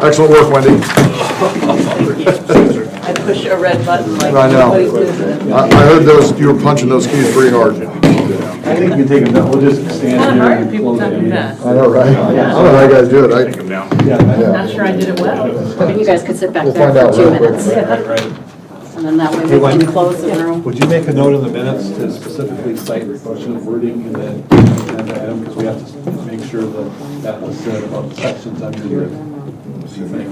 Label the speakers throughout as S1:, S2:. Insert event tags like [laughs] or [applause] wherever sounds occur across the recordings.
S1: Excellent work, Wendy.
S2: I push a red button like
S1: I know.
S2: nobody's business.
S1: I I heard those, you were punching those keys pretty hard.
S3: I think we can take them down, we'll just stand
S2: Not
S3: here.
S2: hard
S3: and
S2: if people
S3: close
S2: don't
S3: the
S2: do
S3: meeting.
S2: that.
S1: I know, right? I don't know how you guys do it. I-
S3: Yeah,
S2: Not sure I did it well.
S4: You guys could sit back
S1: We'll
S4: there
S1: find
S4: for
S1: out
S4: two
S1: real quick.
S4: minutes,
S3: right, right.
S4: and then that way we
S3: Hey,
S4: can
S3: Wendy.
S4: close the
S1: [laughs]
S4: room.
S3: Would you make a note in the minutes to specifically cite the question of wording in that agenda item? Because we have to make sure that that was said about the sections under your thing.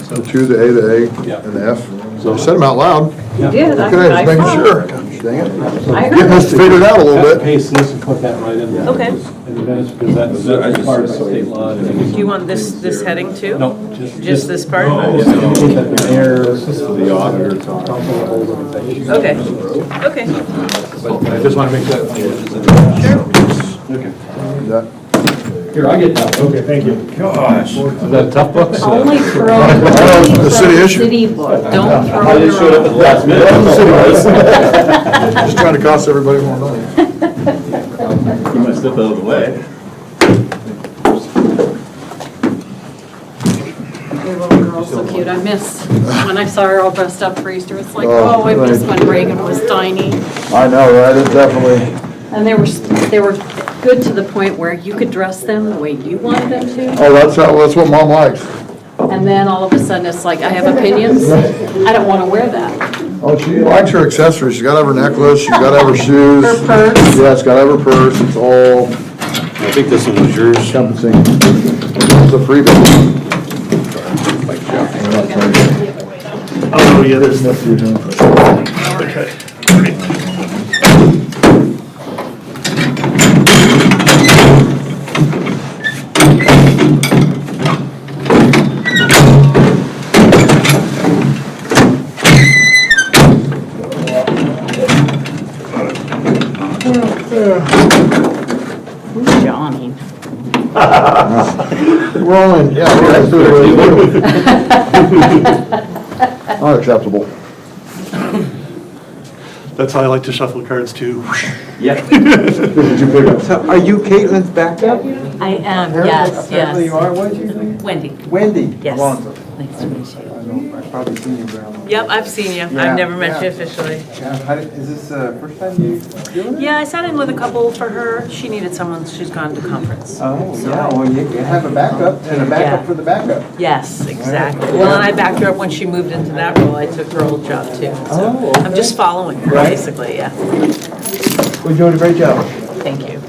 S3: So,
S1: Two, the A, the A, and the F. So I said them out loud.
S3: yeah.
S2: did, I-
S1: Okay,
S2: I
S1: just making
S2: saw.
S1: sure. Gosh, Dang it.
S2: I
S1: Getting
S2: heard,
S1: us to figure it out a
S3: Cut
S1: little
S3: and
S1: bit.
S3: paste this and put that right in there.
S2: Okay.
S3: In the minutes, because that's that's part of state law.
S2: do you want this, this heading too?
S3: No, just.
S2: Just this part?
S3: Just indicate that the mayor, the auditor, council, all of them.
S2: Okay, okay.
S3: But I just want to make that.
S1: Yeah.
S3: Here, I get that. Okay, thank you. Gosh. Is that tough
S1: [laughs]
S3: books?
S4: Only throw
S1: Well, the
S4: the
S1: city issue.
S4: city book.
S2: Don't throw
S3: I
S2: it
S3: just showed up at the
S2: around.
S3: last minute. [laughs]
S1: Just trying to cost everybody more money.
S5: You might step out of the way.
S4: Your little girl's so cute, I
S1: [laughs]
S4: miss, when I saw her all dressed up for Easter, it's like, oh, I miss when Reagan was tiny.
S1: I know, right? It definitely,
S4: And they were, they were good to the point where you could dress them the way you wanted them to,
S1: oh, that's how, that's what mom likes.
S4: and then all of a sudden, it's like, I have opinions, I don't want to wear that. [laughs]
S1: Oh, she likes her accessories. She's got to have her necklace, she's got to have her shoes.
S4: Her purse.
S1: Yeah, she's got to have her purse. It's all
S5: I think this one was yours.
S1: encompassing. It's a freebie.
S6: Oh, yeah, there's nothing you're doing.
S4: Johnny.
S1: We're all in, yeah, we're all
S4: [laughs]
S1: through it. Unacceptable.
S6: That's how I like to shuffle cards too.
S7: Are you Caitlin's backup?
S2: I am, yes,
S7: Apparently you are, what is your name?
S2: Wendy.
S7: Wendy
S2: Yes.
S7: Alonso.
S2: Nice to meet you.
S7: I know, I've probably seen you around.
S2: Yep, I've seen you.
S7: Yeah,
S2: I've never met you
S7: yeah.
S2: officially.
S7: Yeah, how did- Is this the first time you doing it?
S2: Yeah, I sat in with a couple for her. She needed someone, she's gone to conference.
S7: Oh, yeah, well, you you have a backup and a
S2: Yeah.
S7: backup for the backup.
S2: Yes, exactly. Well, and I backed her up when she moved into that role. I took her old job too. So
S7: Oh,
S2: I'm just following her, basically, yeah.
S7: We're doing a great job.
S2: Thank you.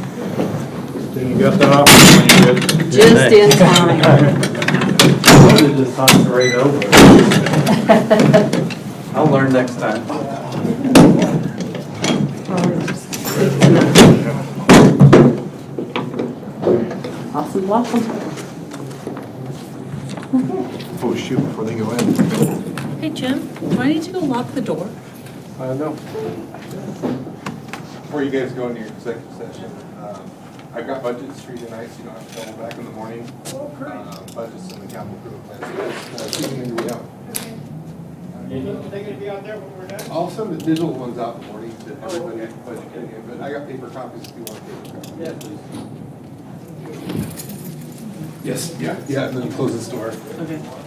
S5: You got that off? You're good.
S4: Just in time.
S3: Just talk right over.
S7: I'll learn next time.
S4: Awesome, waffle.
S1: Oh, shoot, before they go in.
S2: Hey, Jim, do I need to go lock the door?
S7: Uh, no.
S8: Before you guys go into your executive session, um, I've got budgets for you tonight, so you don't have to double back in the morning. Oh, great. Budgets and the capital improvement plan, so just uh, keep them in your way out. They're gonna be out there when we're done? I'll send the digital ones out in the morning to everybody, at the budget committee, but I got paper copies if you want paper copies. Yeah, please. Yes, yeah, yeah, and then close this door.
S2: Okay.